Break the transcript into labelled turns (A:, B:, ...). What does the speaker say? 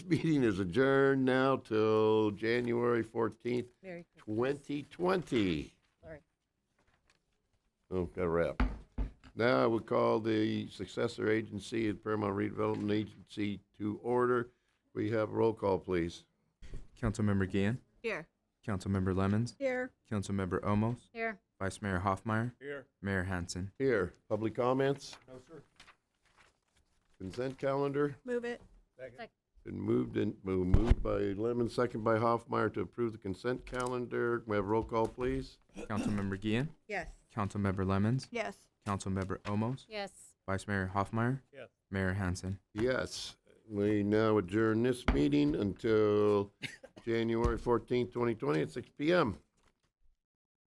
A: meeting is adjourned now till January 14th,
B: Merry Christmas.
A: 2020.
B: Sorry.
A: Oh, got a wrap. Now I would call the successor agency at Paramount Redevelopment Agency to order. We have a roll call, please.
C: Councilmember Gian,
B: Here.
C: Councilmember Lemmons,
B: Here.
C: Councilmember Omos,
B: Here.
C: Vice Mayor Hoffmeyer. Here. Mayor Hanson.
A: Here, public comments? No, sir. Consent calendar?
B: Move it.
A: Been moved and, well, moved by Lemon, second by Hoffmeyer to approve the consent calendar. Can we have a roll call, please?
C: Councilmember Gian,
B: Yes.
C: Councilmember Lemmons,
B: Yes.
C: Councilmember Omos,
B: Yes.
C: Vice Mayor Hoffmeyer. Mayor Hanson.
A: Yes, we now adjourn this meeting until January fourteenth, twenty twenty at six P M.